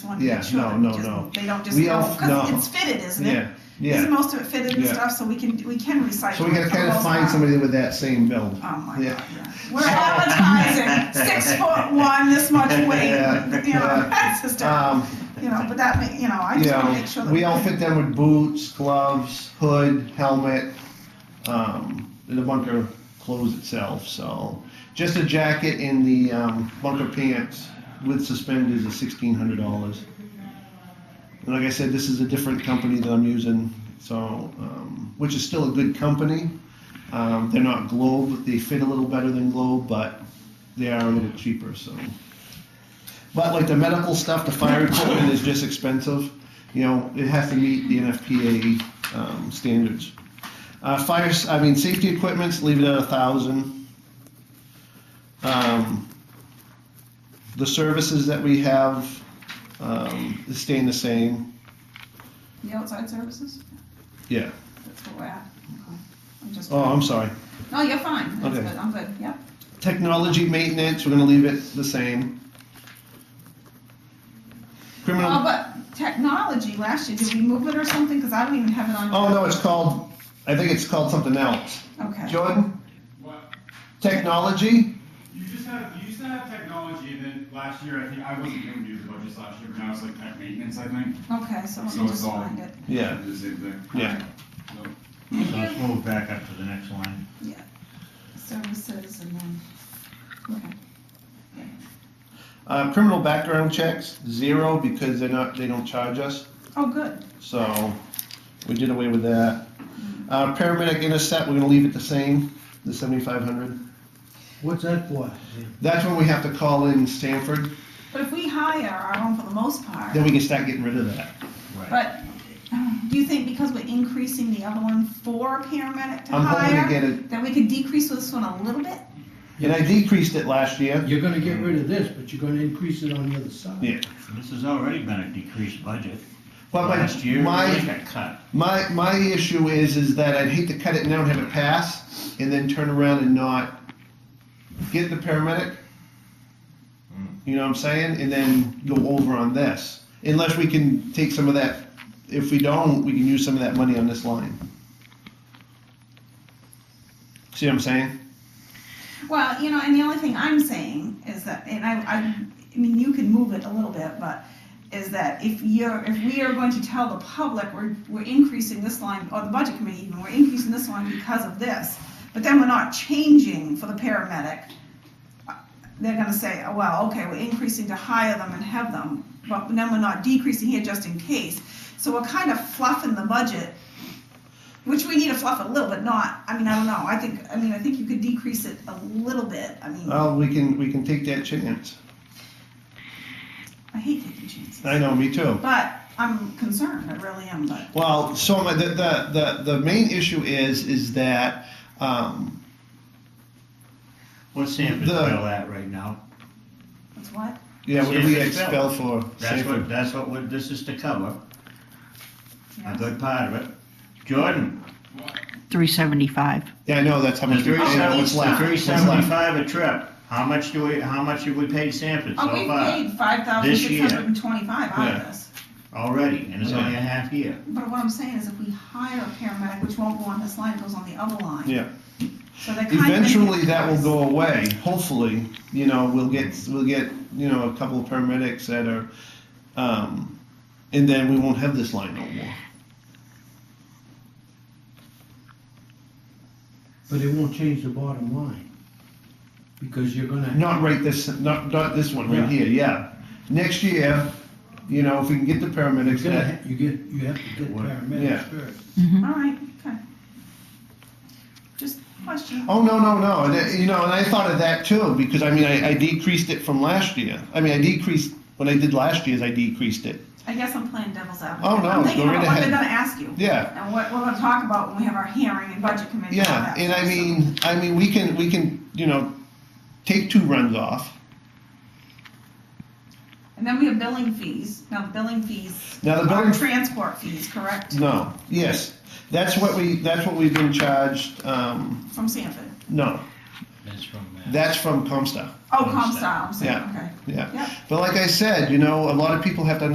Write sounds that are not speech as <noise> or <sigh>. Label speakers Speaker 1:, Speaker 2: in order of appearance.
Speaker 1: want to
Speaker 2: Yeah,
Speaker 1: make sure.
Speaker 2: no,
Speaker 1: that
Speaker 2: no,
Speaker 1: just-
Speaker 2: no.
Speaker 1: They don't just
Speaker 2: We
Speaker 1: go,
Speaker 2: all-
Speaker 1: because
Speaker 2: no.
Speaker 1: it's fitted, isn't it?
Speaker 2: Yeah,
Speaker 1: Isn't
Speaker 2: yeah.
Speaker 1: most of it fitted and
Speaker 2: Yeah.
Speaker 1: stuff, so we can, we can recycle.
Speaker 2: So we gotta
Speaker 1: it for
Speaker 2: kind of
Speaker 1: most
Speaker 2: find
Speaker 1: part.
Speaker 2: somebody with that same build.
Speaker 1: Oh my
Speaker 2: Yeah.
Speaker 1: God, yeah. We're advertising
Speaker 2: <laughs>
Speaker 1: six foot one, this much weight,
Speaker 2: Yeah,
Speaker 1: you know,
Speaker 2: yeah.
Speaker 1: that's just,
Speaker 2: Um,
Speaker 1: you know, but that, may- you know, I
Speaker 2: you
Speaker 1: just wanna
Speaker 2: know,
Speaker 1: make sure that.
Speaker 2: we outfit them with boots, gloves, hood, helmet, um, and the bunker clothes itself, so. Just a jacket and the, um, bunker pants with suspenders is sixteen hundred dollars. And like I said, this is a different company that I'm using, so, um, which is still a good company. Um, they're not Globe, they fit a little better than Globe, but they are a little cheaper, so. But like the medical stuff, the fire equipment is just expensive. You know, it has to meet the NFPA um, standards. Uh, fire, s- I mean, safety equipments, leave it at a thousand. Um, the services that we have um, is staying the same.
Speaker 1: The outside services,
Speaker 2: Yeah.
Speaker 1: that's what we're at. I'm just,
Speaker 2: Oh, I'm sorry.
Speaker 1: no, you're fine, that's
Speaker 2: Okay.
Speaker 1: good, I'm good, yep.
Speaker 2: Technology maintenance, we're going to leave it the same. Criminal.
Speaker 1: Well, Oh, but technology last year, did we move it or something? Because I don't even have it on.
Speaker 2: Oh no, it's called. I think it's called something else.
Speaker 1: Okay.
Speaker 2: Jordan,
Speaker 3: What?
Speaker 2: technology.
Speaker 3: You just have you used to have technology, and then last year I think I wasn't going to do the budgets last year, but now it's like tech maintenance, I think.
Speaker 1: Okay, so let
Speaker 3: So
Speaker 1: me
Speaker 3: it's
Speaker 1: just
Speaker 3: all-
Speaker 1: find it.
Speaker 2: Yeah.
Speaker 3: Do the same thing.
Speaker 2: Yeah.
Speaker 3: So,
Speaker 4: So let's move back up to the next line.
Speaker 1: Services and then, okay.
Speaker 2: Uh, criminal background checks zero because they're not. They don't charge us.
Speaker 1: Oh, good.
Speaker 2: So we did away with that. Uh, paramedic intercept. We're going to leave it the same. The seventy-five hundred.
Speaker 5: What's that for?
Speaker 2: That's when we have to call in Stanford.
Speaker 1: But if we hire our own for the most part,
Speaker 2: Then we can start getting rid of that.
Speaker 1: but <sighs> do you think because we're increasing the other one for a paramedic to
Speaker 2: I'm hoping to
Speaker 1: hire,
Speaker 2: get it.
Speaker 1: that we could decrease this one a little bit?
Speaker 2: And I decreased it last year.
Speaker 5: You're gonna get rid of this, but you're gonna increase it on the other side.
Speaker 2: Yeah.
Speaker 4: This has already been a decreased budget.
Speaker 2: But my-
Speaker 4: Last year,
Speaker 2: my-
Speaker 4: it got cut.
Speaker 2: My, my issue is, is that I'd hate to cut it now and have it pass, and then turn around and not get the paramedic.
Speaker 4: Hmm.
Speaker 2: You know what I'm saying? And then go over on this, unless we can take some of that, if we don't, we can use some of that money on this line. See what I'm saying?
Speaker 1: Well, you know, and the only thing I'm saying is that, and I, I, I mean, you can move it a little bit, but is that if you're, if we are going to tell the public, we're, we're increasing this line, or the budget committee even, we're increasing this line because of this, but then we're not changing for the paramedic, they're gonna say, oh, well, okay, we're increasing to hire them and have them, but then we're not decreasing here just in case. So we're kind of fluffing the budget which we need to fluff a little, but not, I mean, I don't know, I think, I mean, I think you could decrease it a little bit, I mean,
Speaker 2: Well, we can, we can take that chance.
Speaker 1: I hate taking chances.
Speaker 2: I know, me too.
Speaker 1: But I'm concerned, I really am, but,
Speaker 2: Well, so my, the, the, the, the main issue is, is that, um,
Speaker 4: What's Sanford's
Speaker 2: The-
Speaker 4: bill at right now?
Speaker 1: that's what,
Speaker 2: yeah, what do we
Speaker 4: Safe
Speaker 2: expel
Speaker 4: expel.
Speaker 2: for?
Speaker 4: That's
Speaker 2: Safe-
Speaker 4: what, that's what we're- this is to cover, a
Speaker 1: yeah.
Speaker 2: uh,
Speaker 4: good part of it. Jordan,
Speaker 6: three seventy-five.
Speaker 2: Yeah, I know, that's how much we
Speaker 4: three
Speaker 2: paid, out,
Speaker 1: seventy-
Speaker 2: what's left.
Speaker 4: three
Speaker 2: what's left.
Speaker 4: seventy-five a trip, how much do we, how much have we paid Sanford so
Speaker 1: Oh, we
Speaker 4: far?
Speaker 1: paid five thousand
Speaker 4: This
Speaker 1: six
Speaker 4: year.
Speaker 1: hundred and twenty-five out
Speaker 2: uh, Yeah.
Speaker 1: of this,
Speaker 4: Already, and it's
Speaker 2: Yeah.
Speaker 4: only a half year.
Speaker 1: but what I'm saying is if we hire a paramedic, which won't go on this line, it goes on the other line.
Speaker 2: Yeah.
Speaker 1: So they kind of.
Speaker 2: Eventually, that will go away, hopefully, you know, we'll get, we'll get, you know, a couple of paramedics that are, um, and then we won't have this line no more.
Speaker 5: But it won't change the bottom line, because you're gonna.
Speaker 2: Not right this, not, not this one right
Speaker 5: Yeah.
Speaker 2: here, yeah. Next year, you know, if we can get the paramedics,
Speaker 5: You're
Speaker 2: that,
Speaker 5: gonna, you get, you have to get
Speaker 4: What?
Speaker 2: Yeah.
Speaker 5: paramedics first.
Speaker 1: All right, okay. Just question,
Speaker 2: Oh, no, no, no. And that- you know, and I thought of that too, because I mean, I, I decreased it from last year. I mean, I decreased, what I did last year is I decreased it.
Speaker 1: I guess I'm playing devil's advocate.
Speaker 2: Oh, no,
Speaker 1: I'm thinking
Speaker 2: go
Speaker 1: about
Speaker 2: right
Speaker 1: what they're
Speaker 2: ahead.
Speaker 1: gonna ask you.
Speaker 2: Yeah.
Speaker 1: And what we're gonna talk about when we have our hearing and budget committee. and all
Speaker 2: Yeah,
Speaker 1: that
Speaker 2: and I
Speaker 1: stuff, so.
Speaker 2: mean, I mean, we can, we can, you know, take two runs off.
Speaker 1: And then we have billing fees. Now, the billing fees
Speaker 2: Now, the
Speaker 1: are
Speaker 2: Uh, billing,
Speaker 1: transport fees, correct,
Speaker 2: no, yes. That's what we, that's what we've been charged, um,
Speaker 1: from Sanford?
Speaker 2: no,
Speaker 4: That's from uh,
Speaker 2: that's from Comstar,
Speaker 1: Oh, Comstar, I'm saying, okay.
Speaker 2: yeah.
Speaker 1: Yep.
Speaker 2: But like I said, you know, a lot of people have to